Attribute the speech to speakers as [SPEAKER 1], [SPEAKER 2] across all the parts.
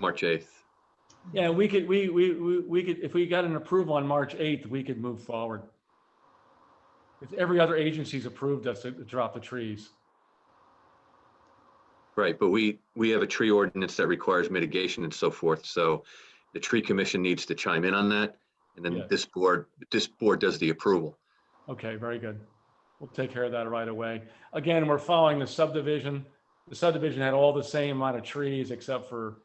[SPEAKER 1] March 8th.
[SPEAKER 2] Yeah, we could, we, we, we we could, if we got an approval on March 8th, we could move forward. If every other agency's approved us to drop the trees.
[SPEAKER 1] Right, but we, we have a tree ordinance that requires mitigation and so forth, so the tree commission needs to chime in on that. And then
[SPEAKER 2] Yes.
[SPEAKER 1] this board, this board does the approval.
[SPEAKER 2] Okay, very good. We'll take care of that right away. Again, we're following the subdivision. The subdivision had all the same amount of trees except for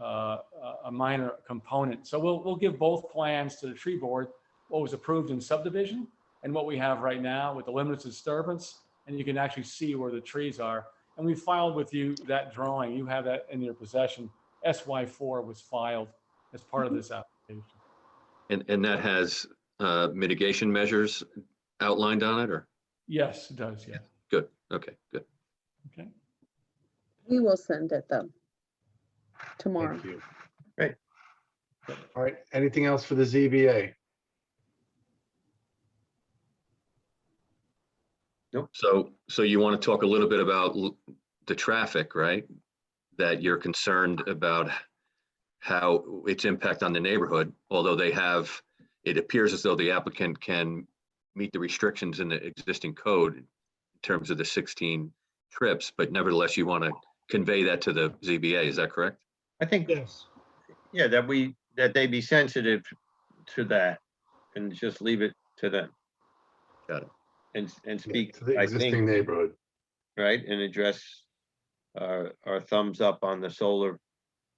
[SPEAKER 2] uh, a a minor component. So we'll, we'll give both plans to the tree board, what was approved in subdivision and what we have right now with the limits of disturbance. And you can actually see where the trees are. And we filed with you that drawing. You have that in your possession. SY4 was filed as part of this application.
[SPEAKER 1] And, and that has uh, mitigation measures outlined on it, or?
[SPEAKER 2] Yes, it does, yeah.
[SPEAKER 1] Good, okay, good.
[SPEAKER 2] Okay.
[SPEAKER 3] We will send it though. Tomorrow.
[SPEAKER 4] Thank you. Great. All right, anything else for the ZBA?
[SPEAKER 1] So, so you want to talk a little bit about l- the traffic, right? That you're concerned about how its impact on the neighborhood, although they have, it appears as though the applicant can meet the restrictions in the existing code in terms of the 16 trips, but nevertheless, you want to convey that to the ZBA, is that correct?
[SPEAKER 5] I think,
[SPEAKER 4] Yes.
[SPEAKER 5] yeah, that we, that they be sensitive to that and just leave it to them.
[SPEAKER 1] Got it.
[SPEAKER 5] And, and speak,
[SPEAKER 4] To the
[SPEAKER 5] I
[SPEAKER 4] existing
[SPEAKER 5] think,
[SPEAKER 4] neighborhood.
[SPEAKER 5] right, and address our, our thumbs up on the solar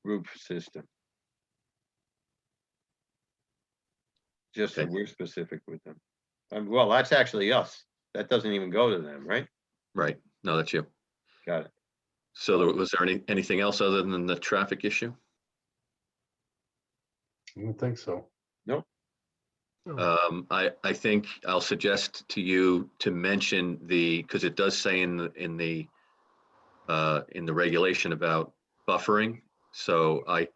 [SPEAKER 5] roof system. Just so
[SPEAKER 1] Okay.
[SPEAKER 5] we're specific with them. Um, well, that's actually us. That doesn't even go to them, right?
[SPEAKER 1] Right, no, that's you.
[SPEAKER 5] Got it.
[SPEAKER 1] So there- was there any, anything else other than the traffic issue?
[SPEAKER 4] I don't think so.
[SPEAKER 1] Um, I, I think I'll suggest to you to mention the, because it does say in, the in the, uh, in the regulation about buffering. So I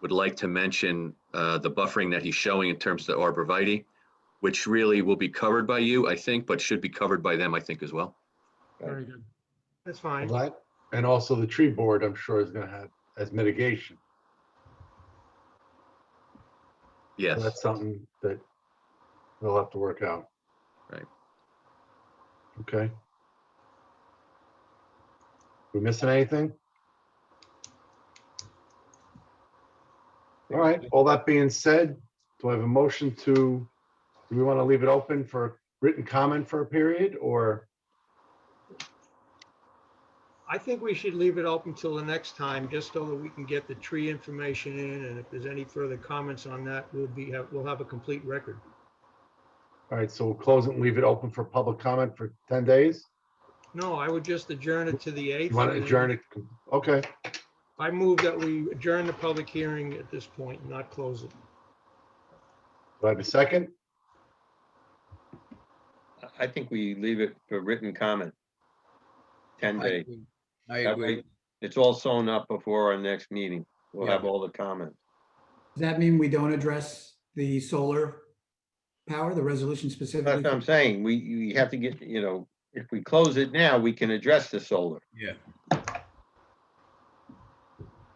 [SPEAKER 1] would like to mention, uh, the buffering that he's showing in terms of the arborvitae, which really will be covered by you, I think, but should be covered by them, I think, as well.
[SPEAKER 2] Very good.
[SPEAKER 6] That's fine.
[SPEAKER 4] That- And also the tree board, I'm sure is gonna have as mitigation. So
[SPEAKER 1] Yes,
[SPEAKER 4] That's something that we'll have to work out.
[SPEAKER 1] Right.
[SPEAKER 4] Okay. We missing anything? All right, all that being said, do I have a motion to, do we want to leave it open for written comment for a period or?
[SPEAKER 6] I think we should leave it open till the next time, just so that we can get the tree information in, and if there's any further comments on that, we'll be, have- we'll have a complete record.
[SPEAKER 4] All right, so we'll close it and leave it open for public comment for 10 days?
[SPEAKER 6] No, I would just adjourn it to the 8th.
[SPEAKER 4] You want to
[SPEAKER 6] and then
[SPEAKER 4] adjourn it? Okay,
[SPEAKER 6] I move that we adjourn the public hearing at this point, not close it.
[SPEAKER 4] do I have a second?
[SPEAKER 5] I- I think we leave it for written comment. Ten
[SPEAKER 7] I
[SPEAKER 5] days.
[SPEAKER 7] agree. I
[SPEAKER 5] That
[SPEAKER 7] agree.
[SPEAKER 5] way, It's all sewn up before our next meeting. We'll have all the comments.
[SPEAKER 8] Does that mean we don't address the solar power, the resolution specifically?
[SPEAKER 5] That's what I'm saying. We, you have to get, you know, if we close it now, we can address the solar.
[SPEAKER 7] Yeah.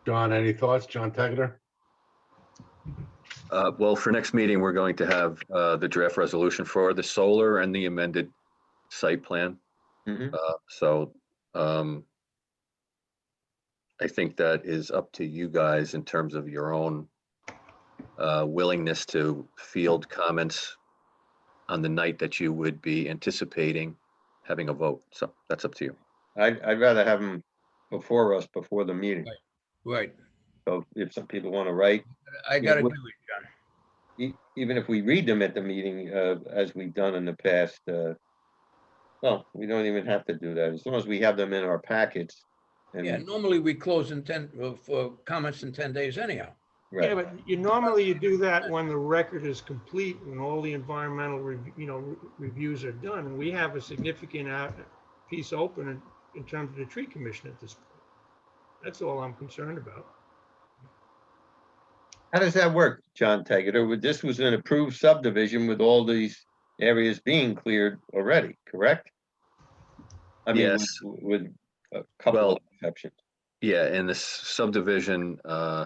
[SPEAKER 4] John, any thoughts? John Tegeter?
[SPEAKER 1] uh, well, for next meeting, we're going to have, uh, the draft resolution for the solar and the amended site plan.
[SPEAKER 5] Mhm.
[SPEAKER 1] Uh, So um, I think that is up to you guys in terms of your own uh, willingness to field comments on the night that you would be anticipating having a vote. So that's up to you.
[SPEAKER 5] I'd, I'd rather have them before us, before the meeting.
[SPEAKER 7] Right. Right.
[SPEAKER 5] So if some people want to write,
[SPEAKER 7] I
[SPEAKER 5] Yeah,
[SPEAKER 7] gotta do
[SPEAKER 5] what-
[SPEAKER 7] it, John.
[SPEAKER 5] e- even if we read them at the meeting, uh, as we've done in the past, uh, well, we don't even have to do that. As long as we have them in our packets. and-
[SPEAKER 7] Yeah, normally we close in ten, uh, for comments in ten days anyhow.
[SPEAKER 6] Yeah,
[SPEAKER 5] Right,
[SPEAKER 6] but you normally you do that when the record is complete, when all the environmental, rev- you know, re- reviews are done. And we have a significant out, piece open in, in terms of the tree commission at this point. That's all I'm concerned about.
[SPEAKER 5] how does that work, John Taggett? Would- This was an approved subdivision with all these areas being cleared already, correct? I mean,
[SPEAKER 1] Yes.
[SPEAKER 5] with- With a couple
[SPEAKER 1] Well,
[SPEAKER 5] of exceptions.
[SPEAKER 1] Yeah, and this subdivision uh,